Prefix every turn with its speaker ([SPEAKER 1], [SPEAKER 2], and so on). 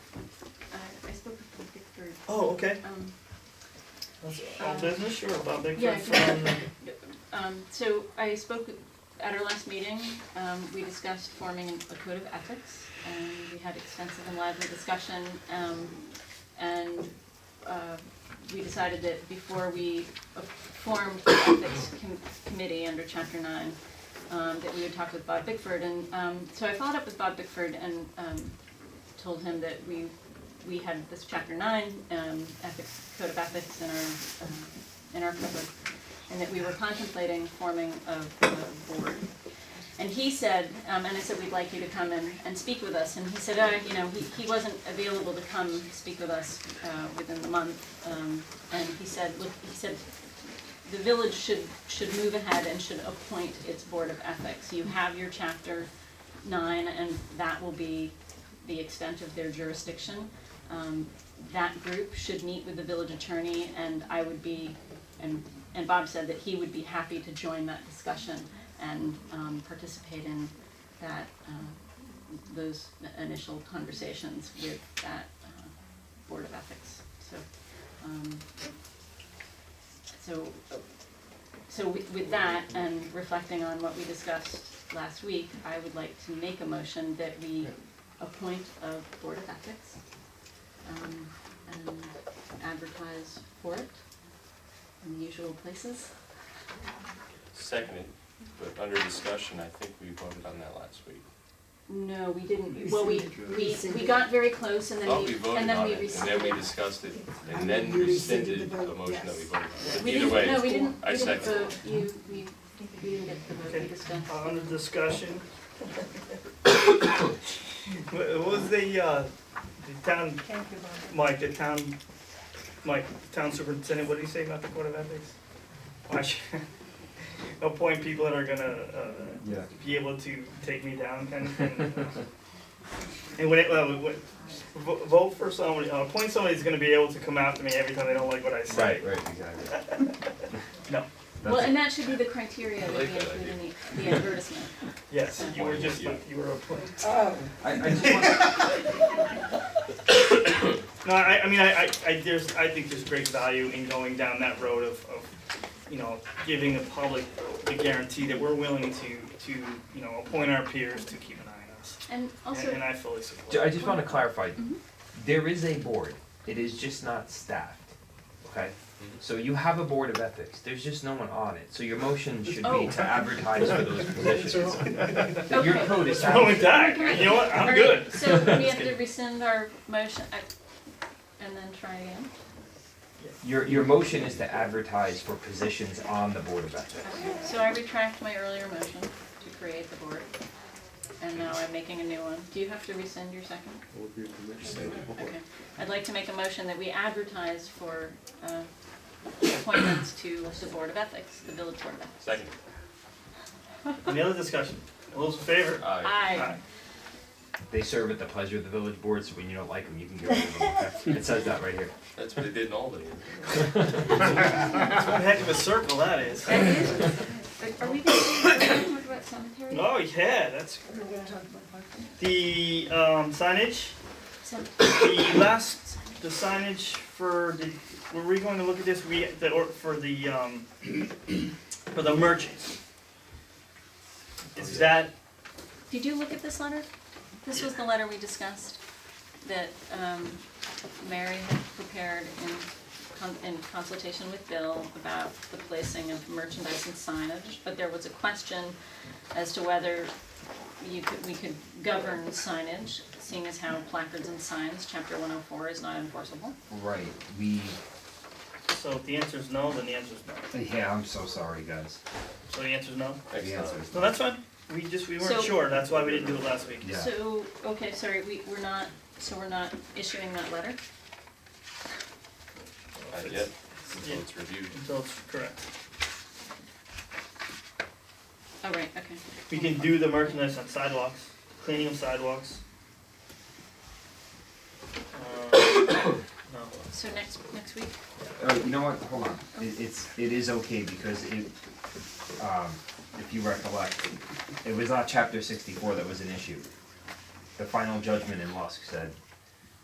[SPEAKER 1] Uh,
[SPEAKER 2] Oh, okay.
[SPEAKER 1] Um,
[SPEAKER 2] That's all business, or about Bigfoot
[SPEAKER 1] Yeah, I
[SPEAKER 2] from,
[SPEAKER 1] um, so I spoke at our last meeting, um, we discussed forming a code of ethics, and we had extensive and lively discussion, um, and, uh, we decided that before we uh, formed the ethics com- committee under chapter nine, um, that we would talk with Bob Bickford, and, um, so I followed up with Bob Bickford and, um, told him that we, we had this chapter nine, um, ethics, code of ethics in our, um, in our code and that we were contemplating forming a, a board. And he said, um, and I said, we'd like you to come and, and speak with us, and he said, uh, you know, he, he wasn't available to come speak with us, uh, within the month, um, and he said, look, he said, the village should, should move ahead and should appoint its board of ethics, you have your chapter nine, and that will be the extent of their jurisdiction. Um, that group should meet with the village attorney, and I would be, and, and Bob said that he would be happy to join that discussion and, um, participate in that, uh, those initial conversations with that, uh, Board of Ethics, so, um, so, so with, with that, and reflecting on what we discussed last week, I would like to make a motion that we appoint a Board of Ethics, um, and advertise for it in the usual places.
[SPEAKER 3] Seconded, but under discussion, I think we voted on that last week.
[SPEAKER 1] No, we didn't, well, we, we, we
[SPEAKER 4] Rescinded.
[SPEAKER 1] got very close and then
[SPEAKER 3] Thought
[SPEAKER 1] we,
[SPEAKER 3] we voted
[SPEAKER 1] and then
[SPEAKER 3] on
[SPEAKER 1] we
[SPEAKER 3] it, and then
[SPEAKER 1] rescinded.
[SPEAKER 3] we discussed it, and
[SPEAKER 4] And
[SPEAKER 3] then
[SPEAKER 4] you rescinded
[SPEAKER 3] rescinded
[SPEAKER 4] the
[SPEAKER 3] the
[SPEAKER 4] vote,
[SPEAKER 3] motion that we
[SPEAKER 4] yes.
[SPEAKER 3] voted on. But
[SPEAKER 1] We
[SPEAKER 3] either
[SPEAKER 1] didn't,
[SPEAKER 3] way,
[SPEAKER 1] no, we didn't,
[SPEAKER 3] I
[SPEAKER 1] we didn't
[SPEAKER 3] second.
[SPEAKER 1] vote, you, we, we didn't get the vote, we
[SPEAKER 2] Okay.
[SPEAKER 1] discussed.
[SPEAKER 2] uh, under discussion. Wha- What was the, uh, the town, Mike, the town, Mike, the town superintendent, what did he say about the code of ethics? I should- Appoint people that are gonna, uh,
[SPEAKER 5] Yeah.
[SPEAKER 2] be able to take me down kind of thing. And when, it, well, when, vo- vote for somebody, uh, appoint somebody who's gonna be able to come after me every time they don't like what I say.
[SPEAKER 5] Right, right, exactly.
[SPEAKER 2] No.
[SPEAKER 1] Well,
[SPEAKER 5] That's-
[SPEAKER 1] and that should be the criteria that
[SPEAKER 3] I
[SPEAKER 1] we
[SPEAKER 3] like that
[SPEAKER 1] include
[SPEAKER 3] idea.
[SPEAKER 1] in the, the advertisement.
[SPEAKER 2] Yes, you were
[SPEAKER 3] Appoint
[SPEAKER 2] just,
[SPEAKER 3] you.
[SPEAKER 2] you were appointed.
[SPEAKER 4] Oh,
[SPEAKER 5] I, I just want,
[SPEAKER 2] No, I, I mean, I, I, I, there's, I think there's great value in going down that road of, of, you know, giving the public the guarantee that we're willing to, to, you know, appoint our peers to keep an eye on us.
[SPEAKER 1] And
[SPEAKER 2] And,
[SPEAKER 1] also,
[SPEAKER 2] and I fully
[SPEAKER 5] ju-
[SPEAKER 2] support.
[SPEAKER 5] I
[SPEAKER 2] it.
[SPEAKER 5] just wanna clarify,
[SPEAKER 1] Mhm.
[SPEAKER 5] there is a board, it is just not staffed, okay? So you have a board of ethics, there's just no one on it, so your motion should be
[SPEAKER 1] Oh.
[SPEAKER 5] to advertise for those positions. That Your
[SPEAKER 1] Okay.
[SPEAKER 5] code is
[SPEAKER 2] What's wrong with
[SPEAKER 5] staffed,
[SPEAKER 2] that? You know what? I'm good.
[SPEAKER 1] Alright, so we have to rescind our motion, I, and then try again.
[SPEAKER 5] your, your motion is to advertise for positions on the board of ethics.
[SPEAKER 1] So I retract my earlier motion to create the board, and now I'm making a new one. Do you have to rescind your second? Okay. I'd like to make a motion that we advertise for uh, appointments to the Board of Ethics, the Village Board of Ethics.
[SPEAKER 3] Second,
[SPEAKER 2] Any other discussion? All those in favor?
[SPEAKER 3] aye.
[SPEAKER 1] Aye.
[SPEAKER 5] They serve at the pleasure of the village board, so when you don't like them, you can get rid of them, okay? It says that right here.
[SPEAKER 3] That's what they did in Albany.
[SPEAKER 2] That's one heck of a circle that is.
[SPEAKER 1] That is- Are we going to talk about cemetery?
[SPEAKER 2] Oh, yeah, that's,
[SPEAKER 4] we're gonna talk about parking.
[SPEAKER 2] the, um, signage,
[SPEAKER 1] Cem-
[SPEAKER 2] the last, the signage for the, were we going to look at this, we, the, or, for the, um, for the merchants? Is that,
[SPEAKER 1] Did you look at this letter? This was the letter we discussed that um, Mary had prepared in con- in consultation with Bill about the placing of merchandise and signage, but there was a question as to whether you could, we could govern signage, seeing as how placards and signs, chapter one oh four is not enforceable.
[SPEAKER 5] Right, we,
[SPEAKER 2] so if the answer is no, then the answer is no,
[SPEAKER 5] yeah, I'm so sorry, guys,
[SPEAKER 2] so the answer is no?
[SPEAKER 3] Next
[SPEAKER 5] the answer
[SPEAKER 3] time.
[SPEAKER 5] is
[SPEAKER 2] No, that's fine, we just, we
[SPEAKER 1] So-
[SPEAKER 2] weren't sure, that's why we didn't do it last week.
[SPEAKER 5] Yeah.
[SPEAKER 1] So, okay, sorry, we, we're not, so we're not issuing that letter?
[SPEAKER 3] Not yet, until it's reviewed.
[SPEAKER 2] Until it's correct.
[SPEAKER 1] Oh, right, okay.
[SPEAKER 2] We can do the merchandise on sidewalks, cleaning of sidewalks. Uh, No,
[SPEAKER 1] So next, next week?
[SPEAKER 5] Oh, you know what, hold on, it, it's, it is okay, because it, um, if you recollect, it was not chapter sixty-four that was an issue. The final judgment in Lusk said,